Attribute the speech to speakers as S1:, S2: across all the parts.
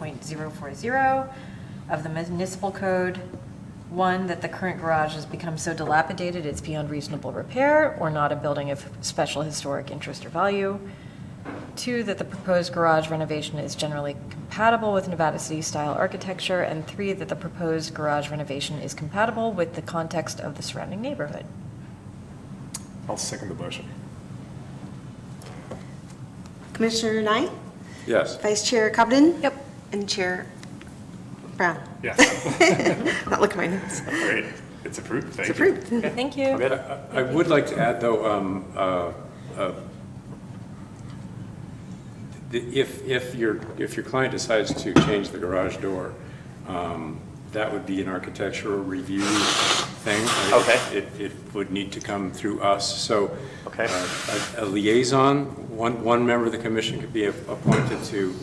S1: 1.88.040 of the municipal code. One, that the current garage has become so dilapidated it's beyond reasonable repair or not a building of special historic interest or value. Two, that the proposed garage renovation is generally compatible with Nevada City-style architecture. And three, that the proposed garage renovation is compatible with the context of the surrounding neighborhood.
S2: I'll second the motion.
S3: Commissioner Knight,
S4: Yes.
S3: Vice Chair Cobden?
S1: Yep.
S3: And Chair Brown.
S2: Yeah,
S3: Not look at my notes.
S2: great. It's approved, thank
S3: It's
S2: you.
S3: approved.
S1: Thank you.
S4: I I would like to add, though, um, uh, uh, the- if, if your, if your client decides to change the garage door, um, that would be an architectural review thing.
S2: Okay.
S4: It, it would need to come through us, so.
S2: Okay.
S4: uh, A a liaison, one, one member of the commission could be appointed to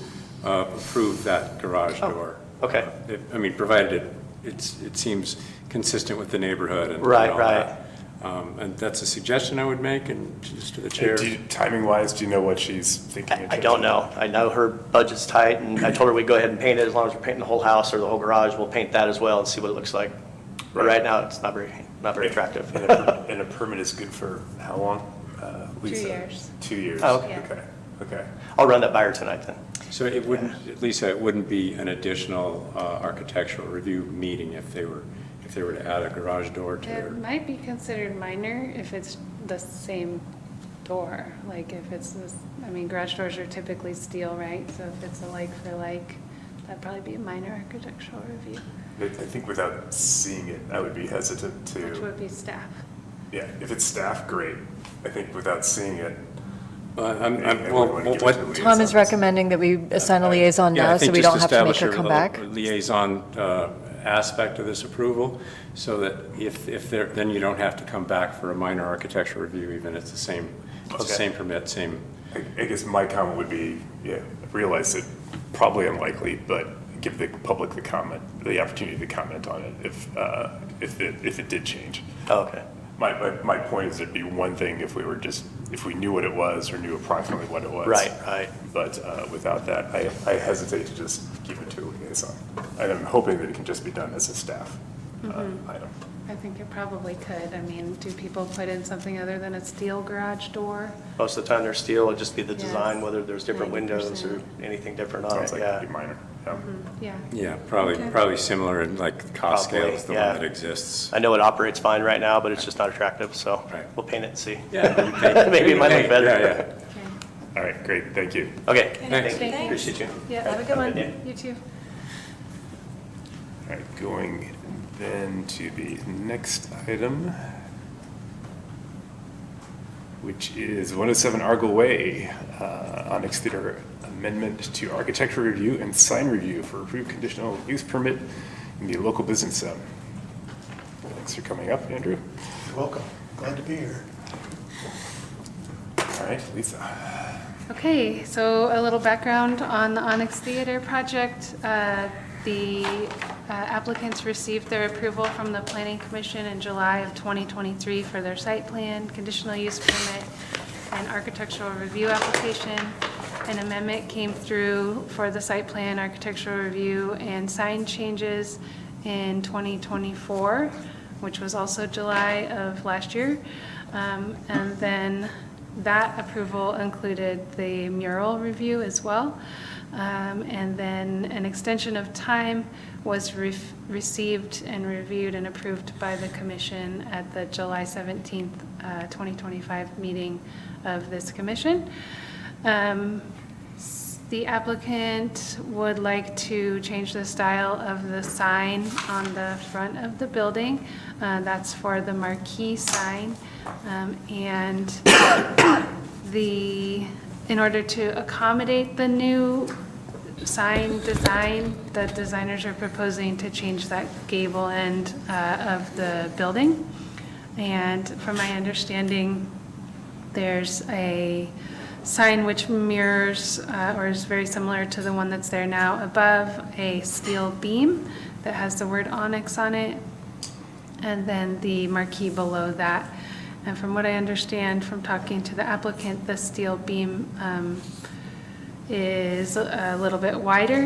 S4: uh, approve that garage door.
S2: Oh, okay.
S4: Uh, it- I mean, provided it, it's, it seems consistent with the neighborhood and. and
S2: Right,
S4: all
S2: right.
S4: that. Um, And that's a suggestion I would make, and just to the chair.
S2: And do you- timing-wise, do you know what she's thinking? in
S5: I I
S2: terms
S5: don't
S2: of-
S5: know. I know her budget's tight, and I told her we'd go ahead and paint it, as long as we're painting the whole house or the whole garage, we'll paint that as well and see what it looks like. But
S2: Right.
S5: right now, it's not very, not very attractive.
S2: And a per- and a permit is good for how long, uh, Lisa?
S6: years.
S2: Two years?
S5: Oh, okay.
S2: Okay, okay.
S5: I'll run that by her tonight, then.
S4: So it wouldn't, Lisa, it wouldn't be an additional uh, architectural review meeting if they were, if they were to add a garage door to their.
S6: It might be considered minor if it's the same door, like if it's, this- I mean, garage doors are typically steel, right? So if it's a like for like, that'd probably be a minor architectural review,
S2: I I think without seeing it, I would be hesitant
S6: which
S2: to,
S6: would be staff.
S2: yeah, if it's staff, great. I think without seeing it.
S4: Uh, I'm-
S2: I
S4: I'm-
S2: wouldn't
S4: Well,
S2: wanna give it
S4: what,
S2: to Lisa.
S1: Tom is recommending that we assign a liaison
S4: Yeah, I
S1: now, so
S4: think
S1: we
S4: just
S1: don't have to make
S4: establish
S1: her
S4: a
S1: come
S4: little
S1: back.
S4: Liaison uh, aspect of this approval, so that if, if there, then you don't have to come back for a minor architectural review, even if it's the same, it's the
S2: Okay.
S4: same permit, same.
S2: I I guess my comment would be, yeah, realize it probably unlikely, but give the public the comment, the opportunity to comment on it if, uh, if it, if it did change.
S5: Oh, Okay.
S2: My, my, my point is it'd be one thing if we were just, if we knew what it was or knew approximately what it was.
S5: Right, right.
S2: But uh, without that, I, I hesitate to just give it to a liaison. And I'm hoping that it can just be done as a staff uh, item.
S6: I think it probably could. I mean, do people put in something other than a steel garage door?
S5: Most of the time, they're steel, it'd just be the
S6: Yes.
S5: design, whether there's different windows or
S6: 90%.
S5: anything different on it,
S2: Sounds like it'd be
S5: yeah.
S2: minor. yeah.
S6: Yeah.
S4: Yeah, probably,
S6: Okay.
S4: probably similar in like cost
S5: Probably,
S4: scale is the
S5: yeah.
S4: one that exists.
S5: I know it operates fine right now, but it's just not attractive, so
S4: Right.
S5: we'll paint it and see.
S4: Yeah,
S5: Maybe it might look
S4: Hey,
S5: better.
S4: Yeah, yeah.
S6: Okay.
S2: All right, great, thank you.
S5: Okay,
S4: Thanks.
S5: thank you, appreciate you.
S6: Yeah, have a good one. You too.
S2: All right, going then to the next item, which is 107 Argyle Way, uh, Onyx Theater Amendment to Architecture Review and Sign Review for approved conditional use permit in the local business zone. Thanks for coming up, Andrew.
S7: Welcome, glad to be here.
S2: All right, Lisa.
S6: Okay, so a little background on the Onyx Theater project. Uh, The uh, applicants received their approval from the Planning Commission in July of 2023 for their site plan, conditional use permit, and architectural review application. An amendment came through for the site plan, architectural review, and sign changes in 2024, which was also July of last year. Um, And then that approval included the mural review as well. Um, And then an extension of time was re- received and reviewed and approved by the commission at the July 17th, uh, 2025 meeting of this commission. Um, s- The applicant would like to change the style of the sign on the front of the building. Uh, That's for the marquee sign. Um, And the, in order to accommodate the new sign design, the designers are proposing to change that gable end uh, of the building. And from my understanding, there's a sign which mirrors, uh, or is very similar to the one that's there now above, a steel beam that has the word Onyx on it, and then the marquee below that. And from what I understand from talking to the applicant, the steel beam um, is a little bit wider